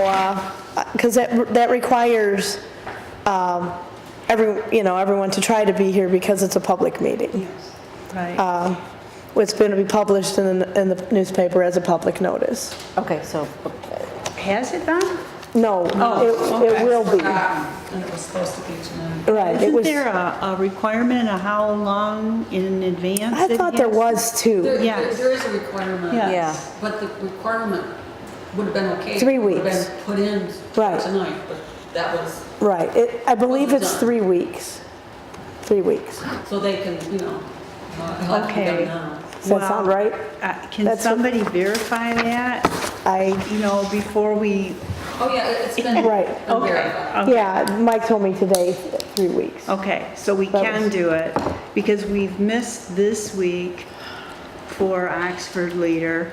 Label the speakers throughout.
Speaker 1: Well, because that, that requires um, every, you know, everyone to try to be here because it's a public meeting.
Speaker 2: Right.
Speaker 1: Um, It's going to be published in, the- in the newspaper as a public notice.
Speaker 3: Okay, so,
Speaker 2: Has it been?
Speaker 1: No,
Speaker 2: Oh,
Speaker 1: it, it will be.
Speaker 4: And it was supposed to be tonight.
Speaker 1: Right, it
Speaker 2: Isn't
Speaker 1: was,
Speaker 2: there a a requirement of how long in advance?
Speaker 1: I
Speaker 2: it
Speaker 1: thought there
Speaker 2: has-
Speaker 1: was two.
Speaker 4: There- There
Speaker 2: Yes.
Speaker 4: there is a requirement.
Speaker 2: Yeah.
Speaker 3: Yeah.
Speaker 4: But the requirement would have been okay. if it
Speaker 1: Three
Speaker 4: would have
Speaker 1: weeks.
Speaker 4: been Put in
Speaker 1: Right.
Speaker 4: tonight, but that was,
Speaker 1: Right, it, I believe
Speaker 4: Wasn't
Speaker 1: it's
Speaker 4: done.
Speaker 1: three weeks. Three weeks.
Speaker 4: so they can, you know, uh, help
Speaker 2: Okay.
Speaker 4: them now.
Speaker 1: Does that sound
Speaker 2: Well,
Speaker 1: right?
Speaker 2: uh, Can
Speaker 1: That's what-
Speaker 2: somebody verify that,
Speaker 1: I,
Speaker 2: you know, before we,
Speaker 4: Oh, yeah, it- it's been.
Speaker 1: Right.
Speaker 4: been
Speaker 2: Okay.
Speaker 4: verified.
Speaker 2: Okay. Oh.
Speaker 1: yeah, Mike told me today, three weeks.
Speaker 2: okay, so we
Speaker 1: That
Speaker 2: can
Speaker 1: was-
Speaker 2: do it, because we've missed this week for Oxford Leader.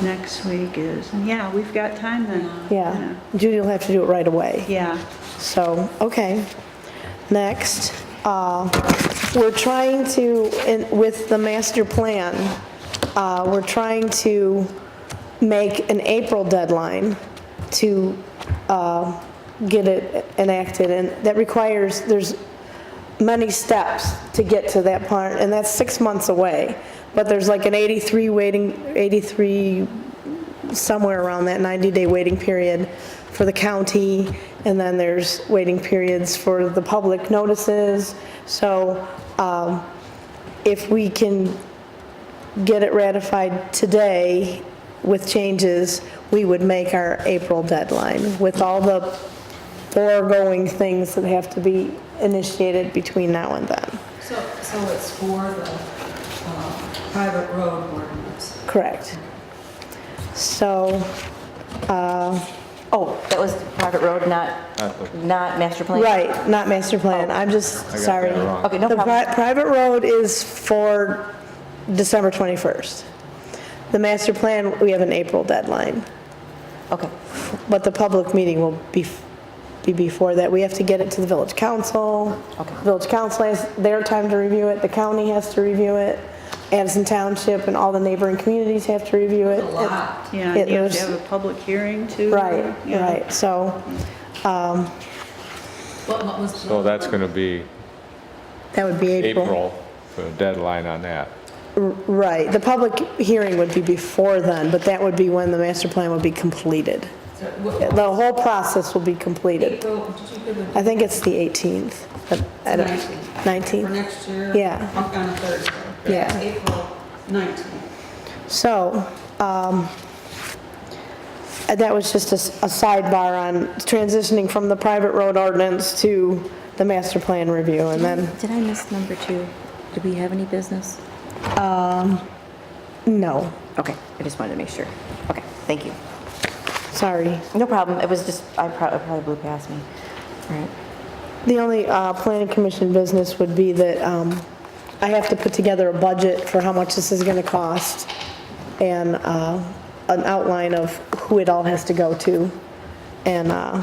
Speaker 2: Next week is, yeah, we've got time then.
Speaker 1: Yeah, Judy will have to do it right away.
Speaker 2: Yeah.
Speaker 1: So, okay. Next, uh, we're trying to, in- with the master plan, uh, we're trying to make an April deadline to uh, get it enacted, and that requires, there's many steps to get to that part, and that's six months away. But there's like an 83 waiting, 83 somewhere around that 90-day waiting period for the county, and then there's waiting periods for the public notices. So um, if we can get it ratified today with changes, we would make our April deadline with all the foregoing things that have to be initiated between now and then.
Speaker 4: So, so it's for the uh, private road ordinance.
Speaker 1: Correct. So, uh,
Speaker 3: oh, that was private road, not, not master plan?
Speaker 1: Right, not master
Speaker 3: oh,
Speaker 1: plan, I'm just,
Speaker 5: that
Speaker 1: sorry.
Speaker 5: wrong.
Speaker 3: Okay, no
Speaker 1: The pri-
Speaker 3: problem.
Speaker 1: private road is for December 21st. The master plan, we have an April deadline,
Speaker 3: Okay,
Speaker 1: but the public meeting will be, f- be before that. We have to get it to the village council.
Speaker 3: Okay.
Speaker 1: Village council has their time to review it, the county has to review it, Addison Township and all the neighboring communities have to review it.
Speaker 4: A lot.
Speaker 2: Yeah,
Speaker 1: It
Speaker 2: you have
Speaker 1: was-
Speaker 2: to have a public hearing too.
Speaker 1: Right,
Speaker 2: Yeah.
Speaker 1: right, so
Speaker 4: What, what was?
Speaker 5: So that's going to be
Speaker 1: that would be
Speaker 5: April for a deadline on that.
Speaker 1: Right, the public hearing would be before then, but that would be when the master plan would be completed.
Speaker 4: What-
Speaker 1: The whole process will be completed.
Speaker 4: April, did you give
Speaker 1: I
Speaker 4: it
Speaker 1: think it's the 18th. but I don't-
Speaker 4: Nineteenth. for
Speaker 1: 19th,
Speaker 4: next year?
Speaker 1: Yeah.
Speaker 4: On on a Thursday.
Speaker 1: yeah.
Speaker 4: April 19th.
Speaker 1: So, um, that was just a s- a sidebar on transitioning from the private road ordinance to the master plan review, and then,
Speaker 6: Did I miss number two? Did we have any business?
Speaker 1: no,
Speaker 3: okay, I just wanted to make sure. Okay, thank you.
Speaker 1: sorry.
Speaker 3: No problem, it was just, I prob- it probably blew past me. All right.
Speaker 1: The only uh, planning commission business would be that um, I have to put together a budget for how much this is going to cost and uh, an outline of who it all has to go to. And uh,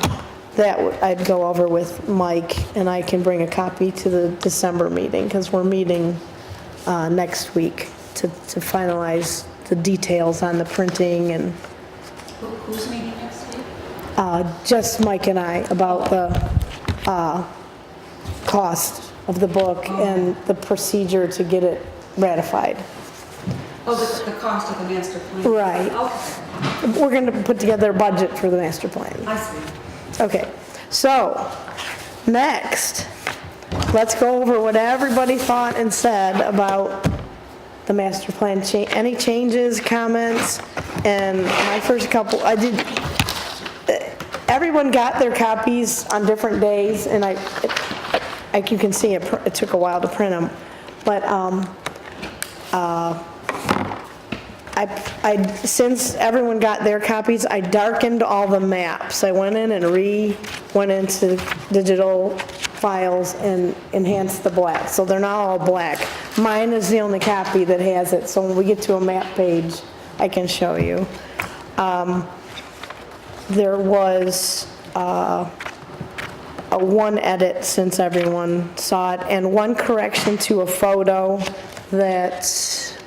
Speaker 1: that would- I'd go over with Mike and I can bring a copy to the December meeting because we're meeting uh, next week to to finalize the details on the printing and
Speaker 4: Who- Who's meeting next week?
Speaker 1: uh, just Mike and I about the uh, cost of the book and the procedure to get it ratified.
Speaker 4: Oh, the, the cost of the master plan.
Speaker 1: Right.
Speaker 4: Okay,
Speaker 1: We're going to put together a budget for the master plan.
Speaker 4: I see.
Speaker 1: Okay, so, next, let's go over what everybody thought and said about the master plan, cha- any changes, comments, and my first couple, I did, everyone got their copies on different days, and I, like you can see, it pr- it took a while to print them, but, um, I, I, since everyone got their copies, I darkened all the maps. I went in and re, went into digital files and enhanced the black, so they're not all black. Mine is the only copy that has it, so when we get to a map page, I can show you. Um, There was, uh, a one edit since everyone saw it, and one correction to a photo that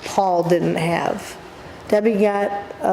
Speaker 1: Paul didn't have. Debbie got